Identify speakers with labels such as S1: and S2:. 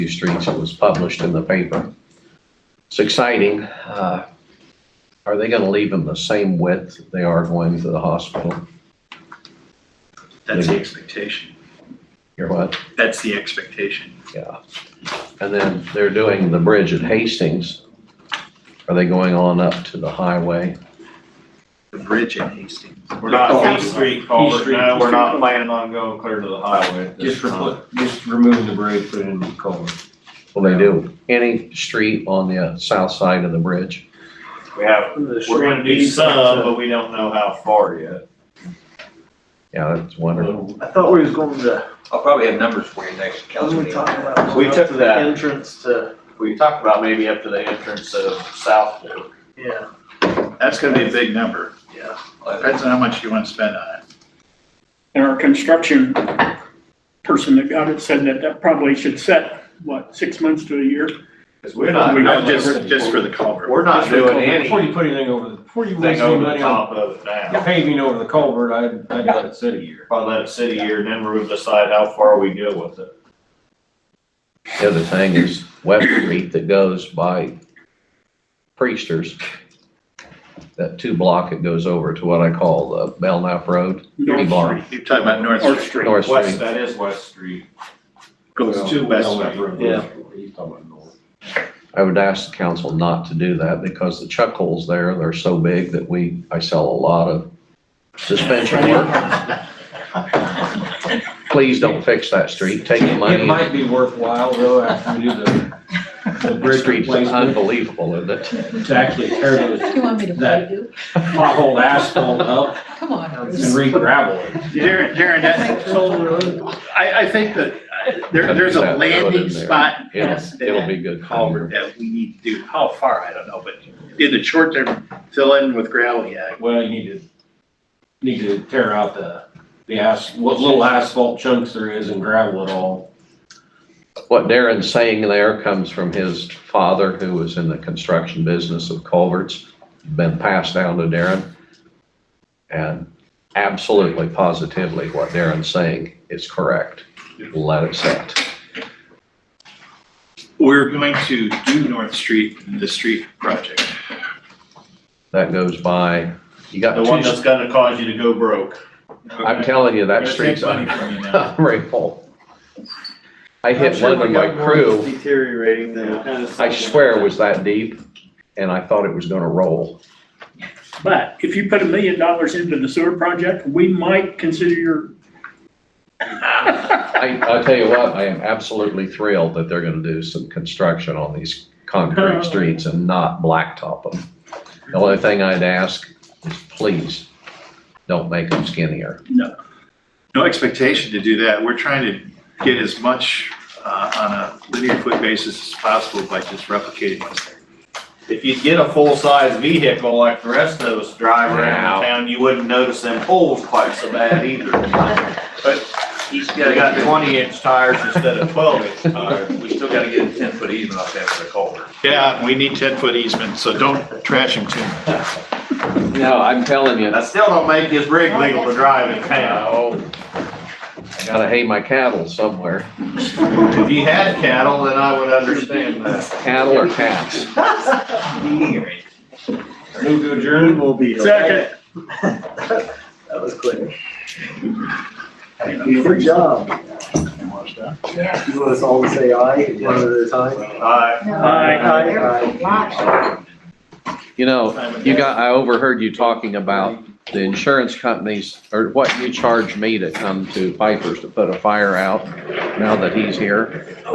S1: few streets. It was published in the paper. It's exciting. Uh, Are they going to leave them the same width they are going to the hospital?
S2: That's the expectation.
S1: Or what?
S2: That's the expectation.
S1: Yeah. And then they're doing the bridge at Hastings. Are they going on up to the highway?
S2: The bridge at Hastings.
S3: We're not, East Street culvert,
S4: Street.
S3: no, we're not planning on going clear to the highway at this
S4: Just
S3: time.
S4: repl just remove the bridge, put it in the culvert.
S1: Will they do any street on the uh, south side of the bridge?
S3: We have, we're gonna do some, but we don't know how far yet.
S1: Yeah, that's wonderful.
S5: I thought we was going to,
S4: I'll probably have numbers for you next
S5: was we talking about?
S3: We took
S5: The
S3: that,
S5: entrance to,
S3: we talked about maybe up to the entrance of South Fork.
S5: yeah,
S2: That's gonna be a big number.
S5: yeah.
S2: Depends on how much you wanna spend on it.
S6: And our construction person that got it said that that probably should set, what, six months to a year?
S3: Cause we're not,
S4: We
S2: No,
S4: got
S3: we're
S2: Just, just for the culvert.
S3: not doing
S4: Before you
S3: anything
S4: put anything over the, before you waste any
S3: over the
S4: money on
S3: top of it now.
S4: paving over the culvert, I'd, I'd let it sit a year.
S3: Probably let it sit a year and then we'll decide how far we go with it.
S1: The other thing is West Street that goes by Priesters. That two block it goes over to what I call the Belknap Road,
S6: North
S1: Barn.
S6: Street.
S2: You're talking about North
S6: North
S2: Street,
S6: Street.
S1: North
S3: West,
S1: Street.
S3: that is West Street.
S2: goes to West Street.
S5: Yeah.
S4: He's talking about north.
S1: I would ask the council not to do that because the chuck holes there, they're so big that we, I sell a lot of suspension work. Please don't fix that street. Take the
S4: It
S1: money.
S4: might be worthwhile though, after we do the, the
S1: The
S4: bridge
S1: street's
S4: replacement,
S1: unbelievable, isn't it?
S4: to actually tear those
S7: You want me to play
S4: That-
S7: you?
S4: pothole asphalt up
S7: Come on,
S4: and
S7: Bruce.
S4: re-gravel it.
S2: Darren, Darren, that, I, I think that uh, there, there's a
S1: That- that would in
S2: landing
S1: there.
S2: spot.
S1: It'll, it'll be good.
S2: Culvert that we need to do. How far, I don't know, but in the short term, fill in with gravel, yeah.
S4: Well, you need to, need to tear out the, the as, what little asphalt chunks there is and gravel it all.
S1: What Darren's saying there comes from his father, who was in the construction business of culverts, been passed down to Darren. And absolutely positively, what Darren's saying is correct. Let it set.
S2: We're going to do North Street, in the street project.
S1: that goes by, you got
S3: The one that's
S1: two,
S3: gonna cause you to go broke.
S1: I'm telling you, that
S2: We're gonna
S1: street's
S2: take money
S1: on,
S2: from you now.
S1: full. I hit one with my crew,
S5: Deteriorating
S1: I swear it was that deep, and I thought it was gonna roll.
S6: But if you put a million dollars into the sewer project, we might consider your.
S1: I, I'll tell you what, I am absolutely thrilled that they're gonna do some construction on these concrete streets and not blacktop them. The only thing I'd ask is please, don't make them skinnier.
S2: no expectation to do that. We're trying to get as much uh, on a linear foot basis as possible by just replicating what's there.
S3: If you'd get a full-size vehicle like the rest of us drive around
S1: Wow.
S3: town, you wouldn't notice them holes quite so bad either. But he's got, got twenty-inch tires instead of twelve-inch tires. We still gotta get a ten-foot easement up there for the culvert.
S2: Yeah, we need 10-foot easement, so don't trash them too much.
S1: No, I'm telling you.
S3: That still don't make this rig legal to drive in town.
S1: I gotta hay my cattle somewhere,
S3: If you had cattle, then I would understand that.
S1: cattle or cats.
S4: Move to adjourn.
S5: Will be.
S6: Second.
S5: That was clear. Good job.
S7: Yeah.
S5: You want us all to say aye, one at a time?
S3: Uh,
S7: No,
S6: Aye,
S5: aye,
S7: they're
S5: aye.
S7: locked.
S1: You know, you got, I overheard you talking about the insurance companies, or what you charge me to come to Pipers to put a fire out now that he's here.